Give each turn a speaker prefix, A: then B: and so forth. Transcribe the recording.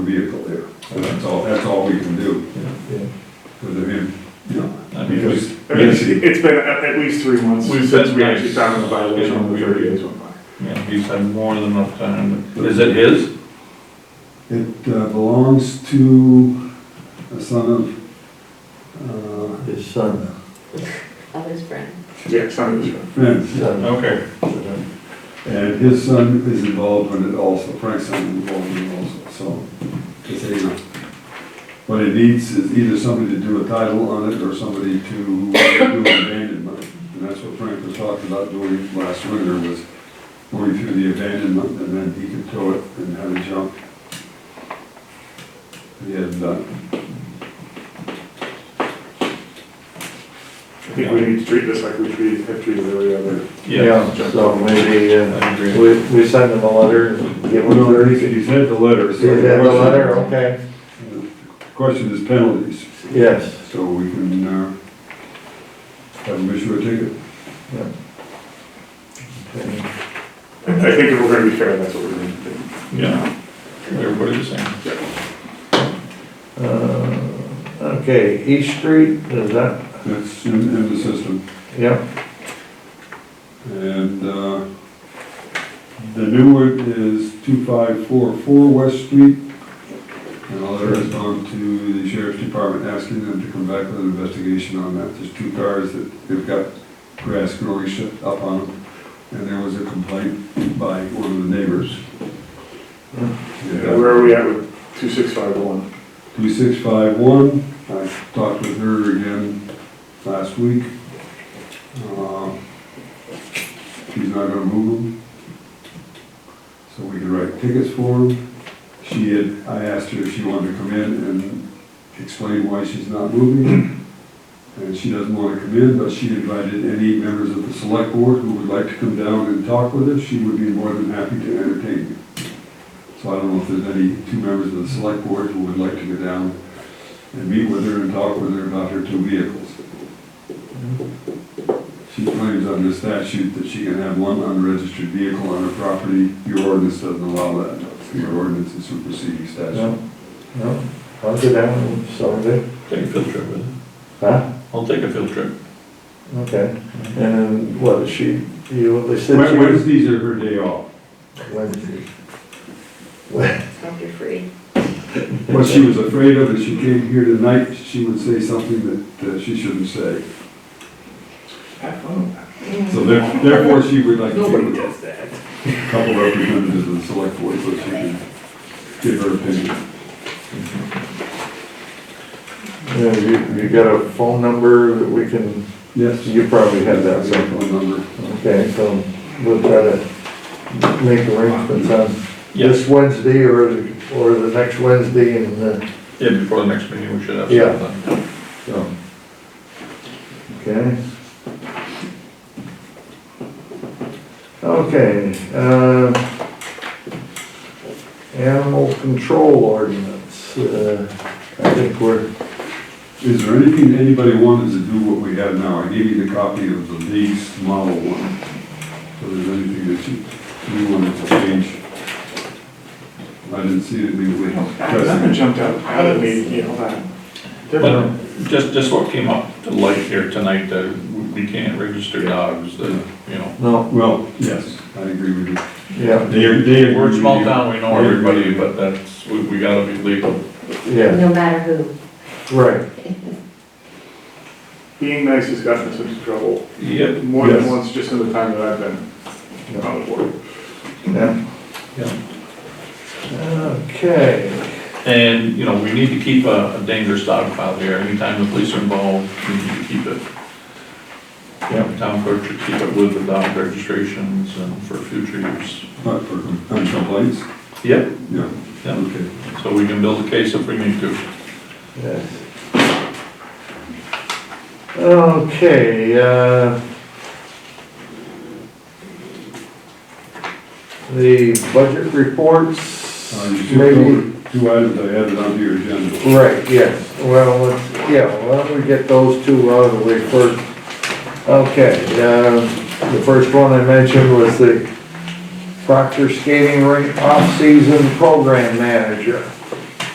A: vehicle there. So that's all, that's all we can do. Because I mean, you know,
B: I mean,
A: because
B: we-
C: I mean, It's it's been at at least three months
B: We've
C: since
B: been-
C: we actually found the violation on the
B: Yeah.
C: thirty days went by.
B: yeah, he's had more than enough time. Is it his?
A: it uh, belongs to a son uh, of,
D: His son,
E: of his friend.
C: Yeah, it's not his
A: uh,
C: fault.
A: friends.
D: son,
B: Okay.
A: And his son is involved in it also, Frank's son is involved in it also, so. it's a- uh, What it needs is either somebody to do a title on it or somebody to do an abandonment. And that's what Frank was talking about doing last winter was going through the abandonment and then he could tow it and have it jump. uh, He had done.
C: I think we need to treat this like we treat, have treated every other.
D: yeah, so maybe,
B: I
D: uh,
B: agree.
D: we, we send him a letter, and give him thirty.
A: he's had the letter.
D: Is that the letter, okay?
A: Question is penalties.
D: Yes,
A: So we can, uh, have them issue a ticket.
D: okay,
C: I I think if we're gonna be fair, that's what we're gonna do.
B: Yeah, everybody's the same.
D: uh, okay, East Street, is that,
A: That's in, in the system.
D: yep,
A: And, uh, the new one is two five four four West Street. And a letter has gone to the sheriff's department asking them to come back with an investigation on that. There's two cars that they've got grass growing shut up on them. And there was a complaint by one of the neighbors. Yeah.
C: Where are we at with two six five one?
A: 2651, I talked with her again last week. Uh, She's not gonna move them. So we can write tickets for them. She had, I asked her if she wanted to come in and explain why she's not moving. them. And she doesn't wanna come in, but she invited any members of the select board who would like to come down and talk with us. She would be more than happy to entertain you. So I don't know if there's any two members of the select board who would like to go down and meet with her and talk with her about her two vehicles. She claims under statute that she can have one unregistered vehicle on her property. Your ordinance doesn't allow that. Your ordinance is superseding statute.
D: no, no, I'll go down, so good,
B: Take a field trip with him.
D: huh?
B: I'll take a field trip.
D: Okay, and what, is she, you, they said she
A: Wed-
D: was
A: Wednesdays are her day off.
D: Wednesday.
E: After free.
A: What she was afraid of is she came here tonight, she would say something that uh, she shouldn't say.
C: Have fun with that.
A: So there- therefore, she would like to.
C: does that.
A: couple representatives of the select board, so she can give her opinion.
D: Yeah, you, you got a phone number that we can,
A: Yes.
D: you probably have that,
A: Cell
D: so.
A: phone number.
D: Okay, so we'll try to make arrangements on
B: Yes.
D: this Wednesday or, or the next Wednesday and, uh,
B: Yeah, before the next meeting, we should have
D: Yeah.
B: something.
D: so. Okay. Okay, uh, animal control ordinance, uh, I think we're,
A: Is there anything anybody wanted to do what we have now? I gave you the copy of the lease model one. So there's anything that you, you wanted to change? I didn't see anything we.
C: That one jumped out, out of me, you know, that.
B: But um, just, just what came up to light here tonight, that we can't register dogs, that, you know.
D: no,
A: Well, yes, I agree with you.
D: yeah,
A: They, they.
B: We're a small town, we know everybody, but that's, we, we gotta be legal.
D: yeah,
E: No matter who.
D: right,
C: Being nice has gotten us into trouble
B: Yep.
C: more than
A: Yes.
C: once just in the time that I've been on the board.
D: yeah.
B: Yeah.
D: Okay,
B: And, you know, we need to keep a a dangerous dog file here, anytime the police are involved, we need to keep it. Yeah, town clerk should keep it with the dog registrations and for future use.
A: Not Uh, for, on complaints?
B: Yep.
A: Yeah.
B: Yeah,
A: Okay.
B: so we can build a case if we need to.
D: yes. Okay, uh, the budget reports,
A: Uh, you should
D: maybe,
A: go with two items I added onto your agenda.
D: right, yes, well, let's, yeah, why don't we get those two out of the way first? Okay, um, the first one I mentioned was the Proctor Skating Rink Off-Season Program Manager.